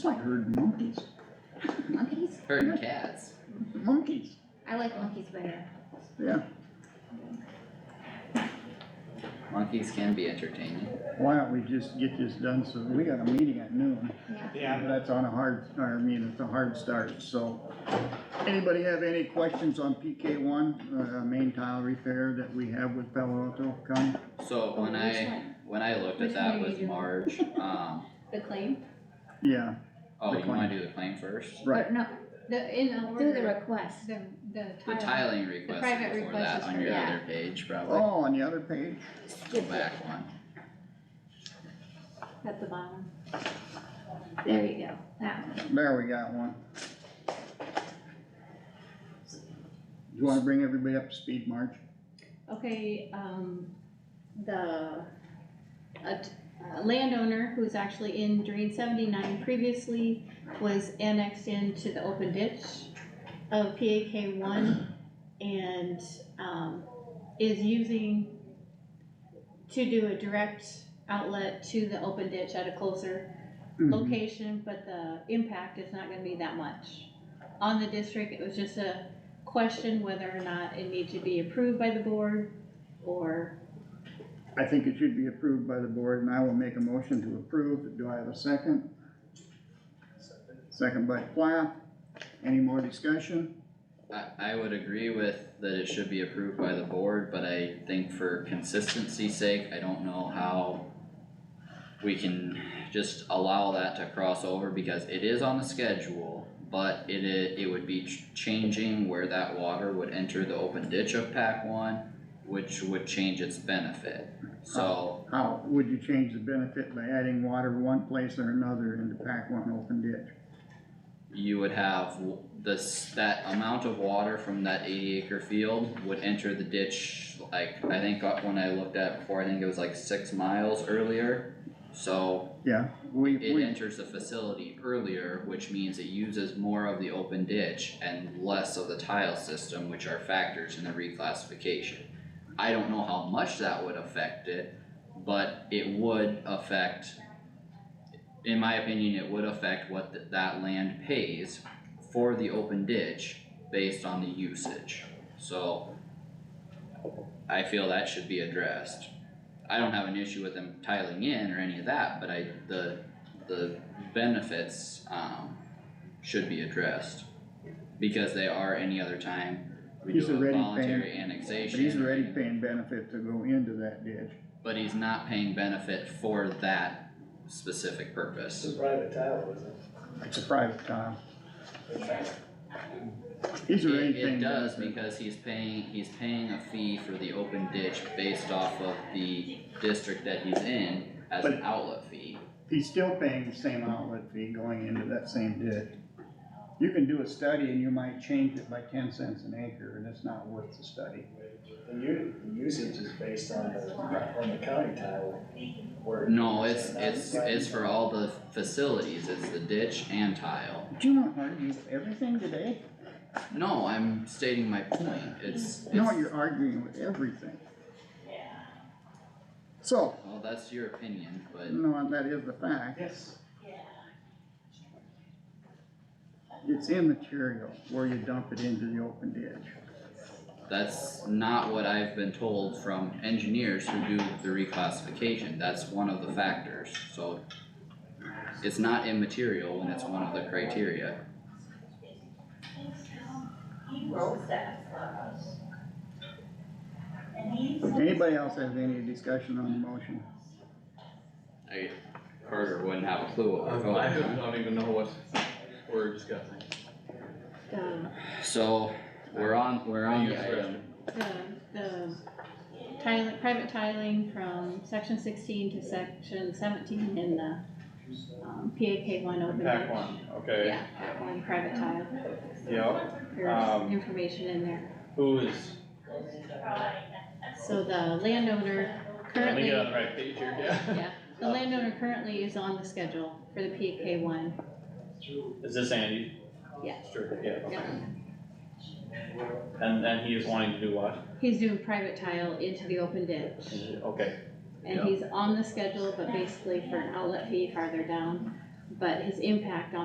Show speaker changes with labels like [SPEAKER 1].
[SPEAKER 1] I heard monkeys,
[SPEAKER 2] Monkeys?
[SPEAKER 3] Heard cats.
[SPEAKER 1] monkeys,
[SPEAKER 2] I like monkeys better.
[SPEAKER 1] yeah,
[SPEAKER 3] Monkeys can be entertaining.
[SPEAKER 1] why don't we just get this done, so, we got a meeting at noon.
[SPEAKER 2] Yeah.
[SPEAKER 4] Yeah,
[SPEAKER 1] That's on a hard, or I mean, it's a hard start, so. Anybody have any questions on PK one, uh, main tile repair that we have with Palo Alto County?
[SPEAKER 3] So
[SPEAKER 2] Oh,
[SPEAKER 3] when
[SPEAKER 2] which
[SPEAKER 3] I,
[SPEAKER 2] one?
[SPEAKER 3] when I looked
[SPEAKER 2] Which
[SPEAKER 3] at that
[SPEAKER 2] one are you
[SPEAKER 3] with
[SPEAKER 2] doing?
[SPEAKER 3] Marge, um,
[SPEAKER 2] The claim?
[SPEAKER 1] Yeah,
[SPEAKER 3] oh,
[SPEAKER 1] The
[SPEAKER 3] you
[SPEAKER 1] claim.
[SPEAKER 3] wanna do the claim first?
[SPEAKER 1] right,
[SPEAKER 2] Or no,
[SPEAKER 5] The, in
[SPEAKER 2] through the
[SPEAKER 5] order,
[SPEAKER 2] request.
[SPEAKER 5] the, the
[SPEAKER 3] The
[SPEAKER 5] tile,
[SPEAKER 3] tiling request
[SPEAKER 5] private
[SPEAKER 3] is before
[SPEAKER 5] request
[SPEAKER 3] that
[SPEAKER 5] is
[SPEAKER 3] on
[SPEAKER 5] for-
[SPEAKER 3] your
[SPEAKER 2] yeah.
[SPEAKER 3] other page, probably,
[SPEAKER 1] oh, on the other page,
[SPEAKER 3] go
[SPEAKER 2] Skip it.
[SPEAKER 3] back one.
[SPEAKER 5] at the bottom.
[SPEAKER 2] There you go, that one.
[SPEAKER 1] there we got one. Do you wanna bring everybody up to speed, Marge?
[SPEAKER 5] Okay, um, the, a t- a landowner who's actually in drain seventy-nine previously was annexed into the open ditch of PAK one and, um, is using to do a direct outlet to the open ditch at a closer
[SPEAKER 6] Mm-hmm.
[SPEAKER 5] location, but the impact is not gonna be that much. On the district, it was just a question whether or not it needs to be approved by the board, or,
[SPEAKER 1] I think it should be approved by the board, and I will make a motion to approve, do I have a second? Second by Plath, any more discussion?
[SPEAKER 3] I, I would agree with that it should be approved by the board, but I think for consistency's sake, I don't know how we can just allow that to cross over because it is on the schedule, but it i- it would be ch- changing where that water would enter the open ditch of pack one, which would change its benefit, so,
[SPEAKER 1] How, would you change the benefit by adding water one place or another into pack one open ditch?
[SPEAKER 3] you would have w- this, that amount of water from that eighty acre field would enter the ditch, like, I think uh, when I looked at it before, I think it was like six miles earlier. So
[SPEAKER 1] Yeah, we,
[SPEAKER 3] it
[SPEAKER 1] we,
[SPEAKER 3] enters the facility earlier, which means it uses more of the open ditch and less of the tile system, which are factors in the reclassification. I don't know how much that would affect it, but it would affect, in my opinion, it would affect what th- that land pays for the open ditch based on the usage, so I feel that should be addressed. I don't have an issue with them tiling in or any of that, but I, the, the benefits, um, should be addressed. Because they are any other time we
[SPEAKER 1] He's
[SPEAKER 3] do a
[SPEAKER 1] already paying-
[SPEAKER 3] voluntary
[SPEAKER 1] but
[SPEAKER 3] annexation.
[SPEAKER 1] he's
[SPEAKER 3] or
[SPEAKER 1] already
[SPEAKER 3] any-
[SPEAKER 1] paying benefit to go into that ditch.
[SPEAKER 3] but he's not paying benefit for that specific purpose.
[SPEAKER 7] It's a private tile, isn't it?
[SPEAKER 1] It's a private tile. He's already
[SPEAKER 3] It, it
[SPEAKER 1] paying
[SPEAKER 3] does
[SPEAKER 1] benefit.
[SPEAKER 3] because he's paying, he's paying a fee for the open ditch based off of the district that he's in as an
[SPEAKER 1] But-
[SPEAKER 3] outlet fee.
[SPEAKER 1] He's still paying the same outlet fee going into that same ditch. You can do a study and you might change it by ten cents an acre and it's not worth the study.
[SPEAKER 7] The u- the usage is based on the, on the county tile where.
[SPEAKER 3] No, it's, it's, it's for all the facilities, it's the ditch and tile.
[SPEAKER 1] Do you want to argue everything today?
[SPEAKER 3] No, I'm stating my point, it's, it's,
[SPEAKER 1] No,
[SPEAKER 3] well,
[SPEAKER 1] you're arguing with everything. So,
[SPEAKER 3] that's your opinion, but
[SPEAKER 1] no, that is the fact.
[SPEAKER 7] Yes.
[SPEAKER 1] It's immaterial where you dump it into the open ditch.
[SPEAKER 3] that's not what I've been told from engineers who do the reclassification, that's one of the factors, so. It's not immaterial when it's one of the criteria,
[SPEAKER 8] He wrote that for us. And he's.
[SPEAKER 1] Anybody else have any discussion on the motion?
[SPEAKER 3] I, Carter wouldn't have a clue what we're
[SPEAKER 6] Um, I
[SPEAKER 3] voting on.
[SPEAKER 6] don't, don't even know what we're discussing.
[SPEAKER 5] the,
[SPEAKER 3] So, we're on, we're on
[SPEAKER 6] Use
[SPEAKER 3] the
[SPEAKER 6] the
[SPEAKER 3] item,
[SPEAKER 5] the, the tiling, private tiling from section sixteen to section seventeen in the, um, PAK one open
[SPEAKER 6] Pack
[SPEAKER 5] ditch.
[SPEAKER 6] one, okay,
[SPEAKER 5] Yeah, that one private tile,
[SPEAKER 6] yeah,
[SPEAKER 5] there's
[SPEAKER 6] Um,
[SPEAKER 5] information in there.
[SPEAKER 6] who is,
[SPEAKER 5] So the landowner
[SPEAKER 6] let me uh,
[SPEAKER 5] currently.
[SPEAKER 6] get on the right page here, yeah?
[SPEAKER 5] Yeah, the landowner currently is on the schedule for the PK one,
[SPEAKER 6] Is this Andy?
[SPEAKER 5] Yeah.
[SPEAKER 6] Sure, yeah, okay.
[SPEAKER 5] yeah.
[SPEAKER 6] And, and he is wanting to do what?
[SPEAKER 5] He's doing private tile into the open ditch,
[SPEAKER 6] Okay,
[SPEAKER 5] and he's on the schedule, but basically for an outlet fee farther down. but his impact on